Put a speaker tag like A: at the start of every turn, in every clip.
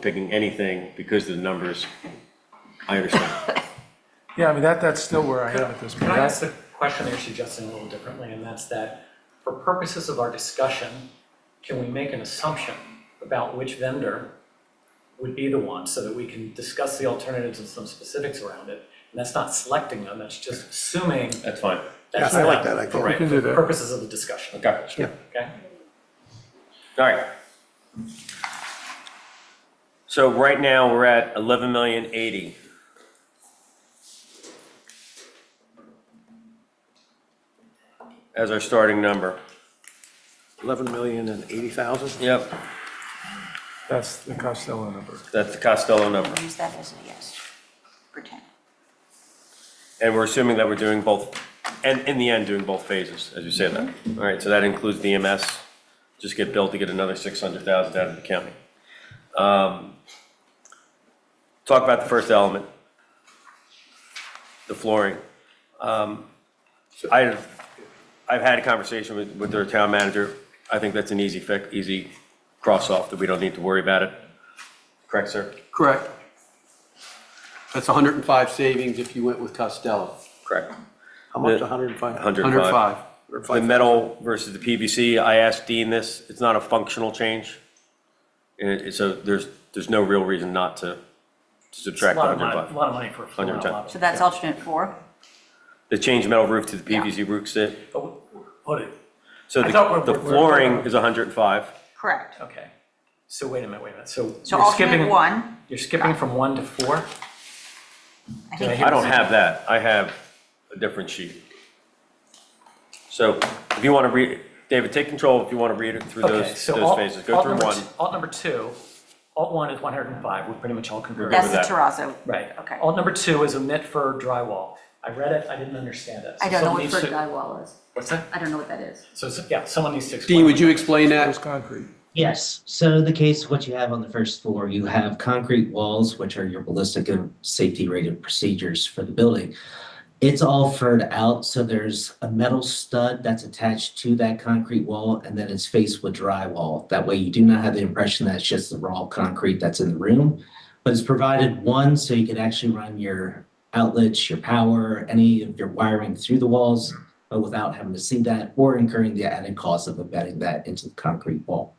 A: picking anything because of the numbers. I understand.
B: Yeah, I mean, that, that's still where I am at this
C: Can
B: point.
C: I ask the question that you're suggesting a little differently, and that's that for purposes of our discussion, can we make an assumption about which vendor would be the one so that we can discuss the alternatives and some specifics around it? And that's not selecting them, that's just assuming
A: That's fine.
C: that's
D: Yeah, I like
C: not
D: that, I think.
B: We
C: right,
B: can do
C: for
B: that.
C: purposes of the discussion,
A: Okay.
D: Yeah.
C: okay?
A: All right. So right now, we're at eleven million eighty. As our starting number.
D: 11 million and 80,000?
A: Yep,
B: That's the Costello number.
A: that's the Costello number.
E: Use that as a yes. Pretend.
A: And we're assuming that we're doing both, and in the end, doing both phases, as you say that. All right, so that includes the EMS, just get built to get another 600,000 out of the county. Um, Talk about the first element, the flooring. Um, I've, I've had a conversation with, with their town manager. I think that's an easy fix, easy cross-off, that we don't need to worry about it. Correct, sir?
D: Correct. That's 105 savings if you went with Costello.
A: Correct.
D: How much,
A: The-
D: 105?
A: 105.
D: 105.
A: The metal versus the PVC, I asked Dean this, it's not a functional change. And it- so there's, there's no real reason not to to
C: It's a
A: subtract
C: lot of money,
A: 105.
C: lot of money for a floor, and a
A: 110.
C: lot of-
E: So that's alternate four?
A: The change metal roof to the PVC roof sit,
C: But we- What, it-
A: so
C: I thought we're-
A: the the
C: we're-
A: flooring is 105.
E: Correct.
C: okay, so wait a minute, wait a minute, so
E: So
C: you're
E: alternate
C: skipping,
E: one,
C: you're skipping from one to four?
E: I
C: Did
E: think,
C: hear
A: I don't
C: this?
A: have that, I have a different sheet. So if you want to read, David, take control if you want to read it through
C: Okay,
A: those,
C: so
A: those
C: alt-
A: phases, go
C: alt
A: through
C: number
A: one.
C: t- Alt number two, alt one is 105, we're pretty much all converted.
E: that's the
A: that.
E: terrazzo.
C: Right.
E: Okay.
C: Alt number two is omit for drywall. I read it, I didn't understand it. so
E: I don't know
C: someone
E: what
C: needs
E: for
C: to-
E: drywall is.
C: What's that?
E: I don't know what that is.
C: So, so- yeah, someone needs to explain.
D: Dean, would you explain that?
B: It's concrete.
F: Yes, so the case, what you have on the first floor, you have concrete walls, which are your ballistic and safety rated procedures for the building. It's all furred out, so there's a metal stud that's attached to that concrete wall, and then it's faced with drywall. That way you do not have the impression that it's just the raw concrete that's in the room. But it's provided one, so you can actually run your outlets, your power, any of your wiring through the walls, but without having to see that or incurring the added cost of embedding that into the concrete wall.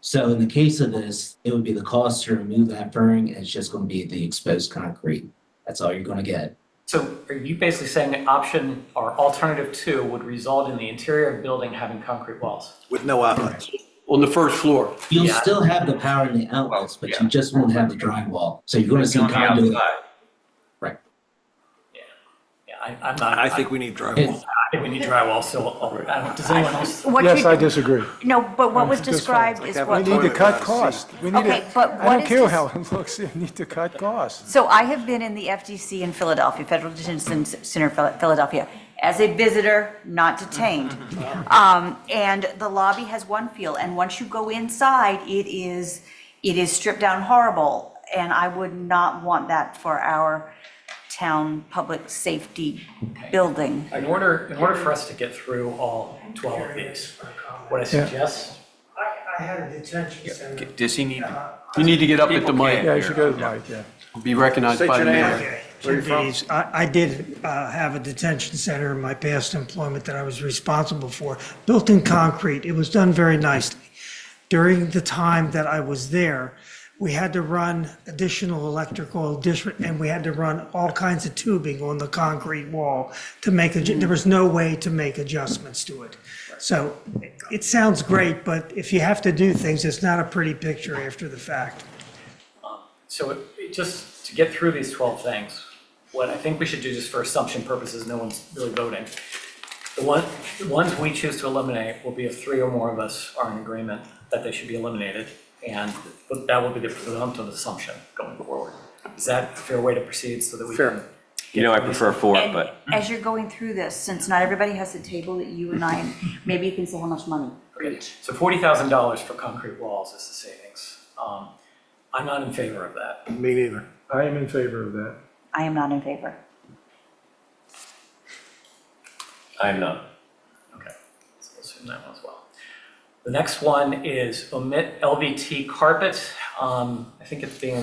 F: So in the case of this, it would be the cost to remove that furring, and it's just gonna be the exposed concrete. That's all you're gonna get.
C: So are you basically saying that option or alternative two would result in the interior of the building having concrete walls?
D: With no outlets. On the first floor.
F: You'll
C: Yeah.
F: still have the power and the outlets, but
A: yeah.
F: you just won't have the drywall, so you're gonna see
A: On the
F: conduit.
A: outside.
C: Yeah, I, I'm not,
D: I
C: I
D: think
C: think
D: we need drywall.
C: we need drywall, so, I'll- I don't- does anyone else?
E: What
B: Yes,
E: you-
B: I disagree.
E: No, but what was
B: It's just
E: described is
B: We
E: what,
B: need to cut costs. We need
E: Okay,
B: to,
E: but
B: I
E: what
B: don't
E: is
B: care
E: this-
B: how it looks, we need to cut costs.
E: so I have been in the FDC in Philadelphia, Federal Detention Center, Phil- Philadelphia, as a visitor, not detained. Um, and the lobby has one feel, and once you go inside, it is, it is stripped down horrible. And I would not want that for our town public safety building.
C: In order, in order for us to get through all 12 of these, what I suggest
G: I, I had a detention center.
H: Does he need to?
D: You need to get up at the mic,
B: Yeah, you should go to Mike, yeah.
D: be recognized by the mayor.
G: Where Uh, I, I did uh, have a detention center in my past employment that I was responsible for, built in concrete. It was done very nicely. During the time that I was there, we had to run additional electrical district, and we had to run all kinds of tubing on the concrete wall to make, adj- there was no way to make adjustments to it. So it- it sounds great, but if you have to do things, it's not a pretty picture after the fact.
C: So it- it, just to get through these twelve things, what I think we should do just for assumption purposes, no one's really voting. The one, the ones we choose to eliminate will be if three or more of us are in agreement that they should be eliminated. And that will be the presumptive assumption going forward. Is that a fair way to proceed so that we can?
A: You know, I prefer four,
E: And
A: but
E: As you're going through this, since not everybody has the table that you and I, maybe you can say how much money.
C: Okay, So forty thousand dollars for concrete walls is the savings. Um, I'm not in favor of that.
D: Me neither.
B: I am in favor of that.
E: I am not in favor.
A: I'm not.
C: Okay, so we'll assume that one as well. The next one is omit LVT carpet. Um, I think it's being